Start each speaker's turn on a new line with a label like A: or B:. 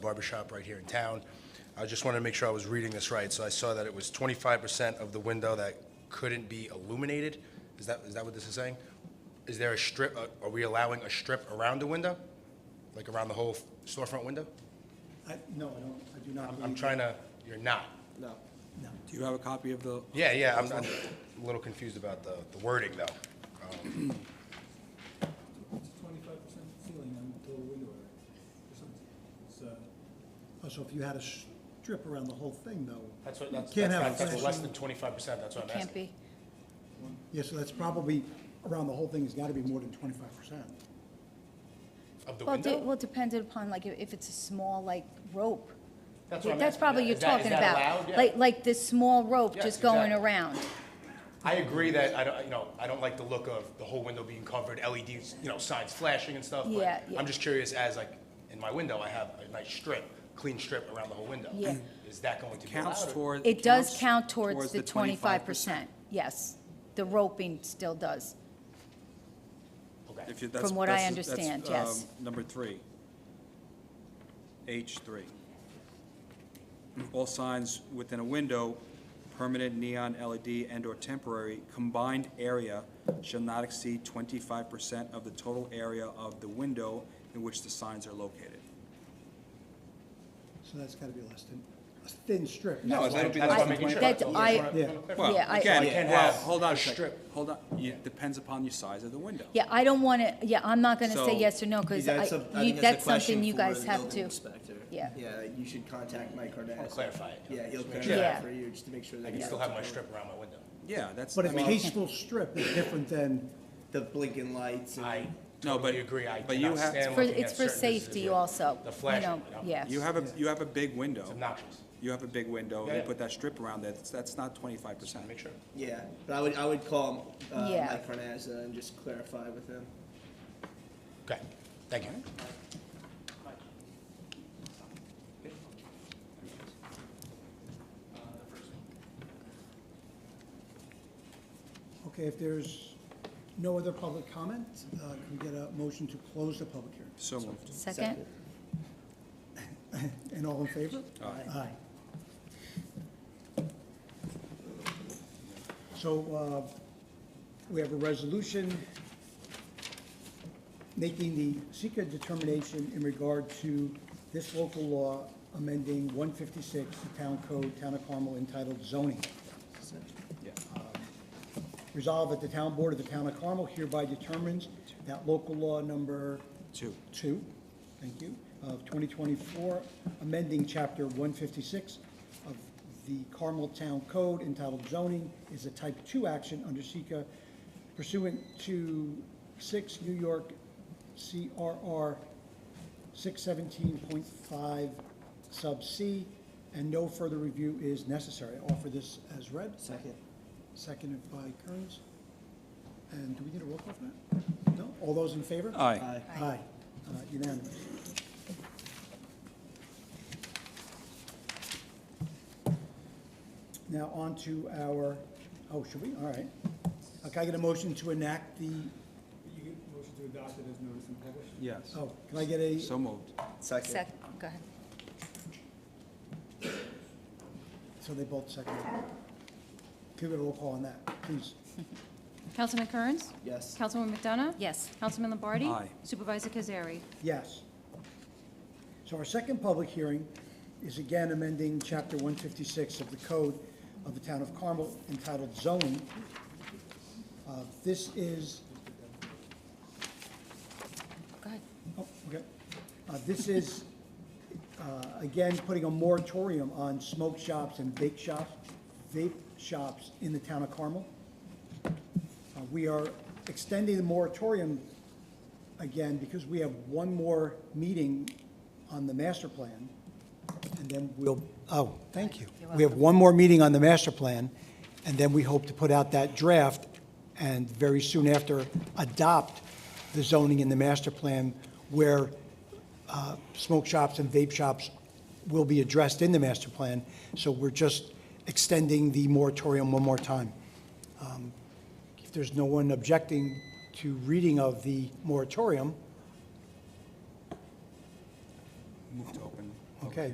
A: barbershop right here in town. I just wanted to make sure I was reading this right, so I saw that it was 25% of the window that couldn't be illuminated. Is that, is that what this is saying? Is there a strip, uh, are we allowing a strip around the window? Like around the whole storefront window?
B: I, no, I don't, I do not
A: I'm-
B: believe.
A: I'm trying to, you're not.
B: No, no.
C: Do you have a copy of the?
A: Yeah, yeah, I'm, I'm a little confused about the the wording, though.
B: It's twenty-five percent ceiling until the window area, or something, uh, so. Also, Oh, if you had a strip around the whole thing, though.
A: That's what,
B: you
A: that's,
B: can't have a
A: that's that's
B: flashing-
A: less than 25%, that's what I'm
D: Can't
A: asking.
D: be.
B: Yeah, so that's probably, around the whole thing, it's gotta be more than twenty-five percent.
A: Of the
D: Well, de-
A: window?
D: well, depended upon, like, if if it's a small, like, rope.
A: That's what I'm asking.
D: probably
A: Is
D: you're
A: that- is
D: talking
A: that
D: about.
A: allowed? Yeah.
D: Like, like this small rope
A: Yes,
D: just going
A: exactly.
D: around.
A: I agree that, I don't, you know, I don't like the look of the whole window being covered, LEDs, you know, signs flashing and stuff. but
D: Yeah, yeah.
A: I'm just curious, as like, in my window, I have a nice strip, clean strip around the whole window.
D: Yeah.
A: Is that going to be
C: Counts
A: allowed? or-
C: toward.
D: It does
C: counts
D: count towards the
C: 25%.
D: 25%. Yes, the roping still does.
A: Okay.
C: If you- that's-
D: From what I
C: that's- that's,
D: understand,
C: um,
D: yes.
C: Number three. H three. All signs within a window, permanent neon E LED and/or temporary, combined area shall not exceed twenty-five percent of the total area of the window in which the signs are located.
B: So that's gotta be less than, a thin strip.
C: No,
B: That's
C: it's-
B: why-
C: that'll be
A: That's
C: less
A: what I'm
C: than
A: making sure. That's-
D: 25%. That
A: that's what I'm-
B: I-
A: I'm clarifying.
C: Well,
D: Yeah, I-
C: again,
D: I
A: can't
C: well,
A: have
C: hold on
A: a
C: a second,
A: strip.
C: hold on, it depends upon your size of the window.
D: Yeah, I don't want to, yeah, I'm not going to say
C: So,
D: yes or no, because
E: Yeah, that's a- I think
D: that's
E: a question
D: something you
E: for
D: guys
E: the
D: have
E: building
D: to.
E: inspector.
D: Yeah.
E: Yeah, you should contact Mike Cardenas.
A: clarify it, you know,
E: Yeah, he'll
A: just make
E: clarify
D: sure.
E: it for you, just to make sure that.
A: I can
E: you
A: still
E: don't
A: have my
E: do it.
A: strip around my window.
C: Yeah, that's.
B: But a
C: I mean-
B: tasteful strip is different than,
E: The blinking lights
A: I
E: and,
C: No, but-
A: totally agree, I
C: but you
A: cannot
C: have-
A: stand
D: For-
A: looking at
D: It's for
A: certain businesses
D: safety
A: with
D: also,
A: The
D: you
A: flashing,
D: know,
A: you know?
D: yes.
C: You have a, you have a big window.
A: It's obnoxious,
C: You have a big window,
A: Yeah,
C: you
A: yeah.
C: put that strip around that, that's- that's not twenty-five percent.
A: make sure.
E: yeah, but I would, I would call, uh,
D: Yeah.
E: Mike Cardenas and just clarify with him.
A: Okay, thank you.
B: okay, if there's no other public comment, uh, can we get a motion to close the public hearing?
C: So moved.
D: Second?
B: And all in favor?
C: Aye.
B: Aye. So uh, we have a resolution making the secret determination in regard to this local law amending 156, the Town Code, Town of Carmel entitled zoning.
C: Yeah.
B: Resolved that the Town Board of the Town of Carmel hereby determines that local law number
C: Two.
B: two, thank you, of 2024, amending Chapter 156 of the Carmel Town Code entitled zoning is a type 2 action under SECA pursuant to 6 New York CRR 617.5 sub C, and no further review is necessary. I Offer this as read.
E: Second.
B: Seconded by Kearns. And do we need a roll call for that? No? All those in favor?
C: Aye.
B: Aye, Uh, unanimous. Now, on to our, oh, should we? All right. Uh, Can I get a motion to enact the,
F: You get motion to adopt it as noticed and published?
C: Yes.
B: oh, can I get a,
C: So moved.
E: Second.
D: Second, go ahead.
B: so they both seconded. Can we get a roll call on that, please?
G: Councilman Kearns?
E: Yes.
G: Councilwoman McDonough?
D: Yes.
G: Councilman Lombardi?
C: Aye.
G: Supervisor Kazari?
B: Yes. So our second public hearing is again amending Chapter 156 of the Code of the Town of Carmel entitled zoning. Uh, This is
D: Go ahead.
B: Oh, okay. Uh, This is, uh, again, putting a moratorium on smoke shops and vape shops, vape shops in the town of Carmel. Uh, We are extending the moratorium again because we have one more meeting on the master plan. And then we'll, oh, thank you. We have one more meeting on the master plan, and then we hope to put out that draft and very soon after adopt the zoning in the master plan where uh, smoke shops and vape shops will be addressed in the master plan. So we're just extending the moratorium one more time. Um, If there's no one objecting to reading of the moratorium,
C: Moved to